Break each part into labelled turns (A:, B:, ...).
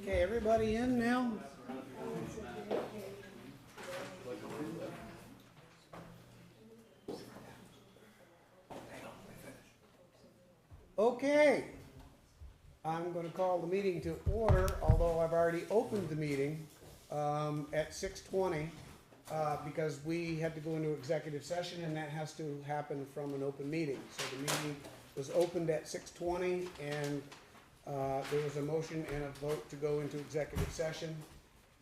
A: Okay, everybody in now? Okay. I'm gonna call the meeting to order, although I've already opened the meeting, um, at six twenty, uh, because we had to go into executive session, and that has to happen from an open meeting. So the meeting was opened at six twenty, and uh, There was a motion and a vote to go into executive session,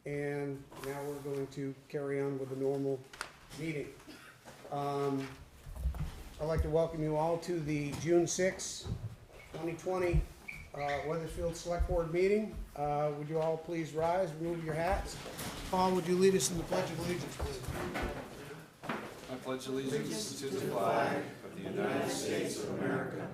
A: and now we're going to carry on with the normal meeting. Um, I'd like to welcome you all to the June 6, 2020 uh, Weathersfield Select Board meeting. Uh, Would you all please rise, remove your hats? Paul, would you lead us in the Pledge of Allegiance, please?
B: I pledge allegiance to the flag of the United States of America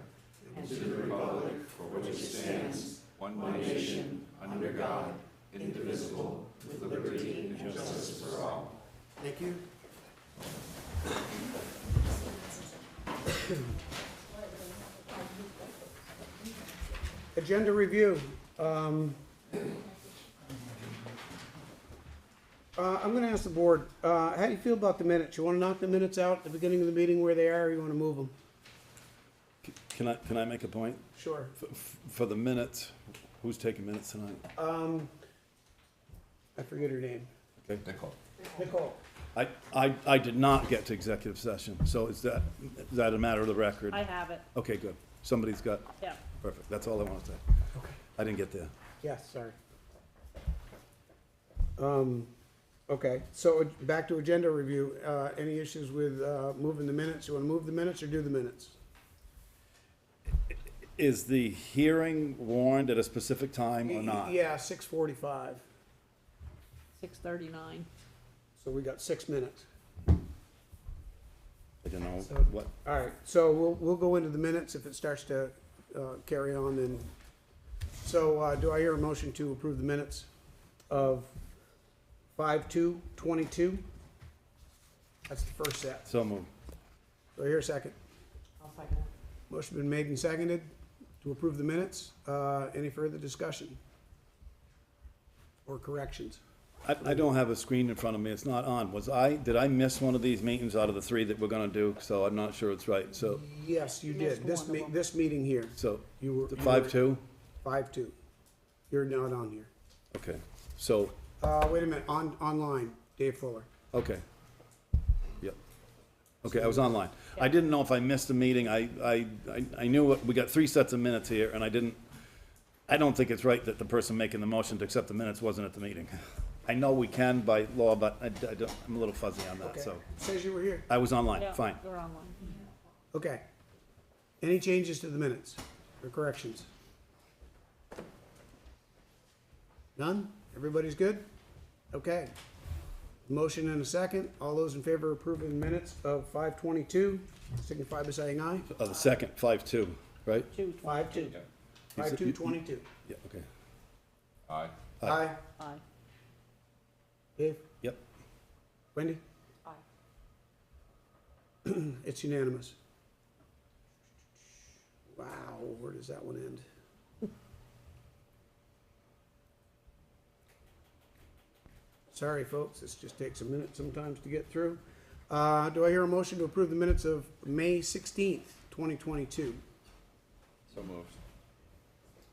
B: and to the republic for which it stands, one nation, under God, indivisible, with liberty and justice for all.
A: Thank you. Agenda review. um, uh, I'm gonna ask the board, uh, how do you feel about the minutes? You wanna knock the minutes out at the beginning of the meeting where they are, or you wanna move them?
C: Can I, can I make a point?
A: Sure.
C: F- f- For the minutes, who's taking minutes tonight?
A: I forget her name.
C: Okay.
B: Nicole.
A: Nicole.
C: I, I, I did not get to executive session, so is that, is that a matter of the record?
D: I have it,
C: Okay, good. Somebody's got,
D: yeah.
C: perfect, that's all I wanted to say.
A: Okay.
C: I didn't get there.
A: Yes, sorry. Um, okay, so back to agenda review. Uh, any issues with, uh, moving the minutes? You wanna move the minutes or do the minutes?
C: Is the hearing warned at a specific time or not?
A: Yeah, six forty-five.
D: Six thirty-nine.
A: So we got six minutes.
C: I don't know
A: So-
C: what,
A: All right, so we'll, we'll go into the minutes if it starts to, uh, carry on and, so, uh, do I hear a motion to approve the minutes of five-two, twenty-two? That's the first set.
C: so moved.
A: Do I hear a second?
D: I'll second it.
A: Motion been made and seconded to approve the minutes. Uh, any further discussion? Or corrections?
C: I, I don't have a screen in front of me, it's not on. Was I, did I miss one of these meetings out of the three that we're gonna do? So I'm not sure it's right, so,
A: Yes, you
D: You
A: did.
D: missed
A: This
D: one of
A: me,
D: them.
A: this meeting here,
C: so,
A: you were. you were-
C: five-two?
A: Five-two. You're not on here.
C: Okay, so,
A: Uh, wait a minute, on, online, Dave Fuller.
C: Okay. Yep. Okay, I was online. I didn't know if I missed a meeting. I, I, I- I knew, what- we got three sets of minutes here, and I didn't, I don't think it's right that the person making the motion to accept the minutes wasn't at the meeting. I know we can by law, but I, I don't, I'm a little fuzzy on that,
A: Okay.
C: so.
A: Says you were here.
C: I was online, fine.
D: They're online.
A: Okay. Any changes to the minutes or corrections? None? Everybody's good? Okay. Motion and a second. All those in favor of approving the minutes of five twenty-two, signify by saying aye.
C: Uh, the second, five-two, right?
D: Two
A: Five two. Five two twenty-two.
C: Yeah, okay.
B: Aye.
C: Aye.
A: Aye.
D: twenty-five.
A: Dave?
C: Yep.
A: Wendy?
D: Aye.
A: It's unanimous. Wow, where does that one end? Sorry, folks, this just takes a minute sometimes to get through. Uh, do I hear a motion to approve the minutes of May sixteenth, twenty twenty-two?
B: So moved.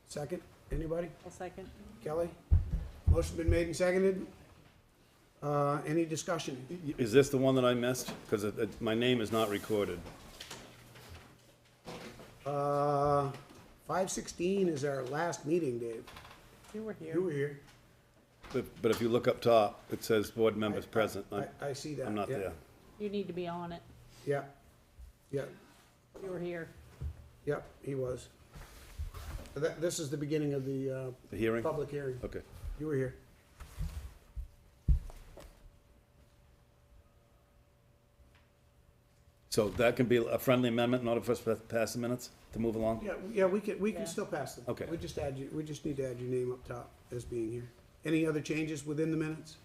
A: Second, anybody?
D: I'll second.
A: Kelly? Motion been made and seconded? Uh, any discussion?
C: Y- Is this the one that I missed? Because it, it, my name is not recorded.
A: Uh, five sixteen is our last meeting, Dave.
D: You were
A: You were
D: here.
A: here.
C: But, but if you look up top, it says board members present.
A: I,
C: I'm,
A: I see that.
C: I'm not
A: yeah.
C: there.
D: You need to be on it.
A: Yeah, yeah,
D: You were here.
A: yeah, he was. So That, this is the beginning of the,
C: The
A: uh,
C: hearing?
A: public hearing.
C: Okay.
A: You were here.
C: So that can be a friendly amendment in order for us to pass the minutes to move along?
A: Yeah, yeah, we can, we can
D: Yeah.
A: still pass them.
C: Okay.
A: We just add you, we just need to add your name up top as being here. Any other changes within the minutes?